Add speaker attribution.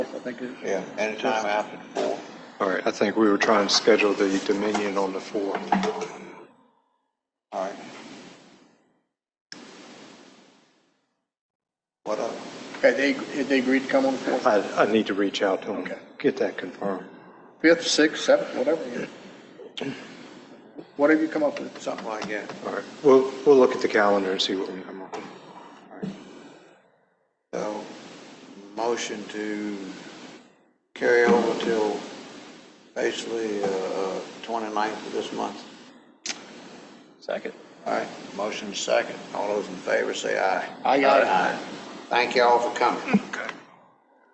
Speaker 1: I think it-
Speaker 2: Yeah, anytime after four.
Speaker 3: All right, I think we were trying to schedule the Dominion on the 4th.
Speaker 2: All right. What up?
Speaker 1: Had they, had they agreed to come on the fourth,
Speaker 3: I, I need to reach out to them,
Speaker 1: Okay.
Speaker 3: get that confirmed.
Speaker 1: fifth, sixth, seventh, whatever? yeah. Whatever you come up with.
Speaker 2: Something like that.
Speaker 3: All right, we'll, we'll look at the calendar and see what we can come up with.
Speaker 2: So, motion to carry over till basically, uh, twenty-ninth of this month.
Speaker 4: Second.
Speaker 2: All right, motion second. All those in favor say aye.
Speaker 1: Aye, aye.
Speaker 2: Thank you all for coming.
Speaker 3: Okay.